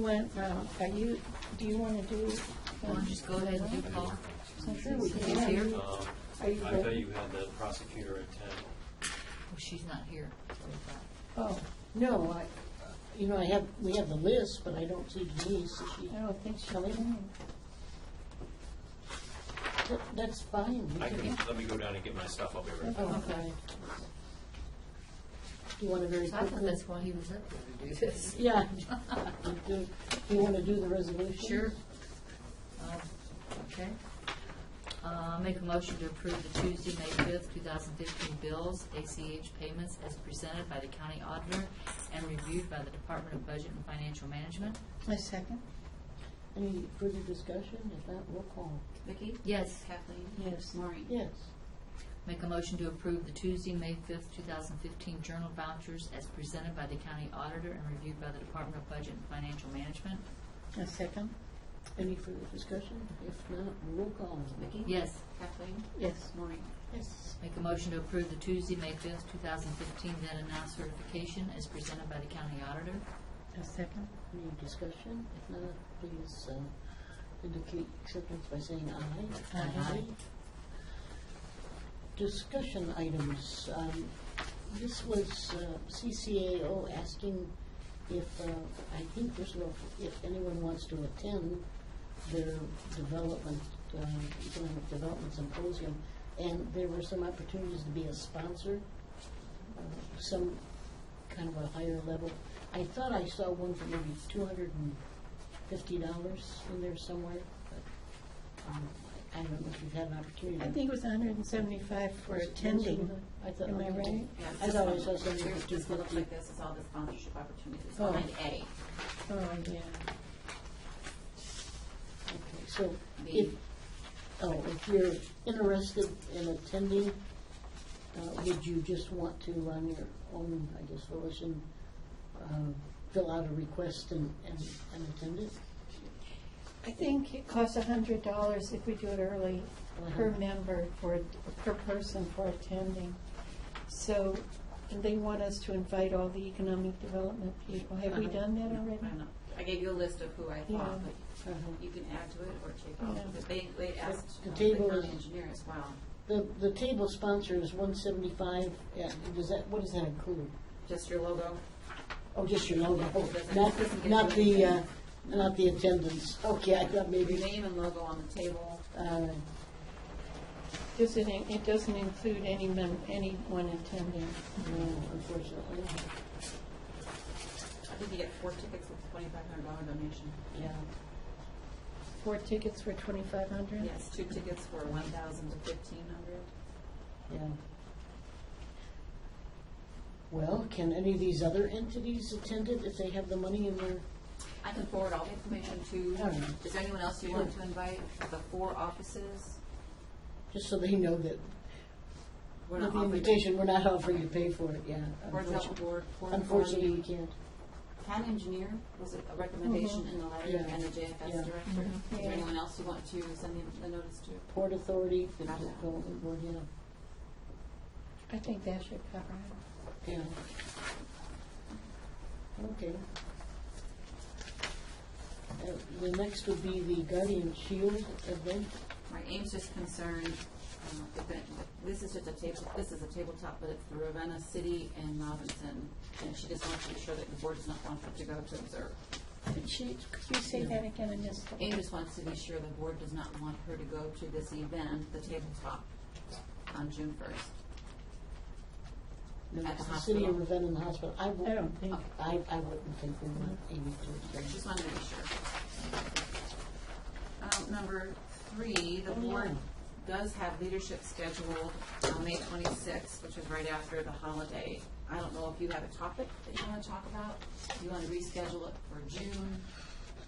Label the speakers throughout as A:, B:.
A: When, um, are you, do you want to do?
B: Why don't you just go ahead and do Paul?
A: Since he's
B: here?
C: Um,
A: Are you
C: I thought
A: ready?
C: you had the prosecutor at ten.
B: Well, she's not here.
A: Oh,
D: No, I, you know, I have, we have the list, but I don't see Denise. Is she-
A: I don't think she'll even.
D: that- That's fine. We
C: I
D: can-
C: can, let me go down and get my stuff, I'll be right back.
D: Oh, okay. Do you want to very
B: So I thought
D: quickly?
B: that's why he was up there to do this.
D: Yeah. You Do do you want to do the resolution?
B: Sure. Um, Okay. Uh, Make a motion to approve the Tuesday, May fifth, two thousand fifteen bills, ACH payments as presented by the county auditor and reviewed by the Department of Budget and Financial Management.
A: My second?
D: Any further discussion? If not, roll call.
E: Vicki?
B: Yes.
E: Kathleen?
A: Yes.
E: Maureen?
D: Yes.
B: Make a motion to approve the Tuesday, May fifth, two thousand fifteen journal vouchers as presented by the county auditor and reviewed by the Department of Budget and Financial Management.
A: My second?
D: Any further discussion? If not, roll call.
E: Vicki?
B: Yes.
E: Kathleen?
A: Yes.
E: Maureen?
D: Yes.
B: Make a motion to approve the Tuesday, May fifth, two thousand fifteen then announced certification as presented by the county auditor.
A: My second?
D: Any discussion? If not, please uh, indicate acceptance by saying aye.
B: Aye.
D: Discussion items. Um, This was uh, CCAO asking if, uh, I think this will, if anyone wants to attend their development, uh, economic development symposium. And there were some opportunities to be a sponsor, uh, some kind of a higher level. I thought I saw one for maybe two hundred and fifty dollars in there somewhere, but um, I don't know if you've had an opportunity.
A: I think it was hundred and seventy-five for attending.
D: I thought-
A: Am I right?
E: Yeah,
D: I
E: this
D: thought I
E: one.
D: saw something
E: Here's-
D: for
E: This one looks
D: 250.
E: like this, it's all the sponsorship opportunities,
D: Oh.
E: line A.
A: Oh, yeah.
D: Okay, so
E: The-
D: if, oh, if you're interested in attending, uh, would you just want to, on your own, I guess, volition, uh, fill out a request and, and and attend it?
A: I think it costs a hundred dollars if we do it early per
D: Uh-huh.
A: member for, per person for attending. So, and they want us to invite all the economic development people. Have we
D: Uh-huh.
A: done that
E: No, I
A: already?
E: don't know. I gave you a list of who I thought,
A: Yeah.
E: but
D: Uh-huh.
E: you can add to it or take off.
A: Yeah.
E: But They, they asked
D: The
E: uh, the
D: table
E: county
D: is-
E: engineer as well,
D: The, the table sponsor is one seventy-five, yeah, does that, what does that include?
E: just your logo.
D: Oh, just your logo,
E: Doesn't- doesn't
D: not,
E: get
D: not
E: you
D: the, uh,
E: anything.
D: not the attendance, okay, I thought
E: Your
D: maybe,
E: name and logo on the table.
D: uh,
A: Does it, in- it doesn't include any mem, anyone attending?
D: no, unfortunately,
E: I think you get four tickets with a twenty-five hundred dollar donation.
D: yeah.
A: Four tickets for twenty-five hundred?
E: Yes, two tickets for one thousand to fifteen hundred.
D: Yeah. Well, can any of these other entities attend it if they have the money in their,
E: I can forward all the information to,
D: Alright.
E: is there anyone else you want to invite? The four offices?
D: just so they know that,
E: We're
D: with
E: not
D: the
E: offering-
D: invitation, we're not offering to pay for it, yeah.
E: Board of Health
D: unfortunately-
E: Board, Board of
D: Unfortunately, we
E: Authority.
D: can't.
E: Town engineer was a recommendation in the letter,
D: Mm-hmm. Yeah.
E: and the
D: Yeah.
E: JFS director. Is
A: Yeah.
E: there anyone else you want to send the- the notice to?
D: Port Authority, the
E: Not that.
D: development board, yeah,
A: I think that should cover it.
D: yeah. Okay. Uh, The next would be the Guardian Shield event.
E: Right, Ames just concerned, uh, event- this is just a table, this is a tabletop, but it's the Ravenna City and Robinson, and she just wants to be sure that the board does not want her to go to observe.
A: Could she, could you say that again, I missed
E: Ames
A: it?
E: just wants to be sure the board does not want her to go to this event, the tabletop, on June first.
D: No,
E: At the
D: it's City of
E: hospital.
D: Ravenna and the hospital. I
A: I
D: wou-
A: don't think,
D: I, I wouldn't think we want Amy to attend.
E: Just wanted to make sure. Um, Number three, the
D: Oh,
E: board
D: yeah.
E: does have leadership scheduled on May twenty-sixth, which is right after the holiday. I don't know if you have a topic that you want to talk about. Do you want to reschedule it for June?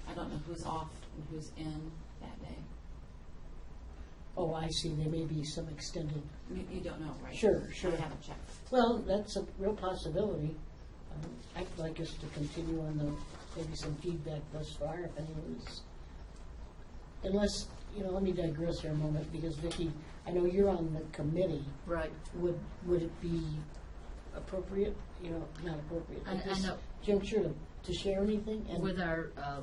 E: I don't know who's off and who's in that day.
D: Oh, I see, there may be some extended,
E: You- You don't know, right?
D: Sure, sure.
E: I haven't checked.
D: well, that's a real possibility. Um, I'd like us to continue on the, maybe some feedback thus far, if anyone's, unless, you know, let me digress here a moment, because Vicki, I know you're on the committee.
B: Right.
D: Would, would it be appropriate, you know, not appropriate,
B: I- I
D: at this
B: know.
D: juncture to share anything? And-
B: With our uh,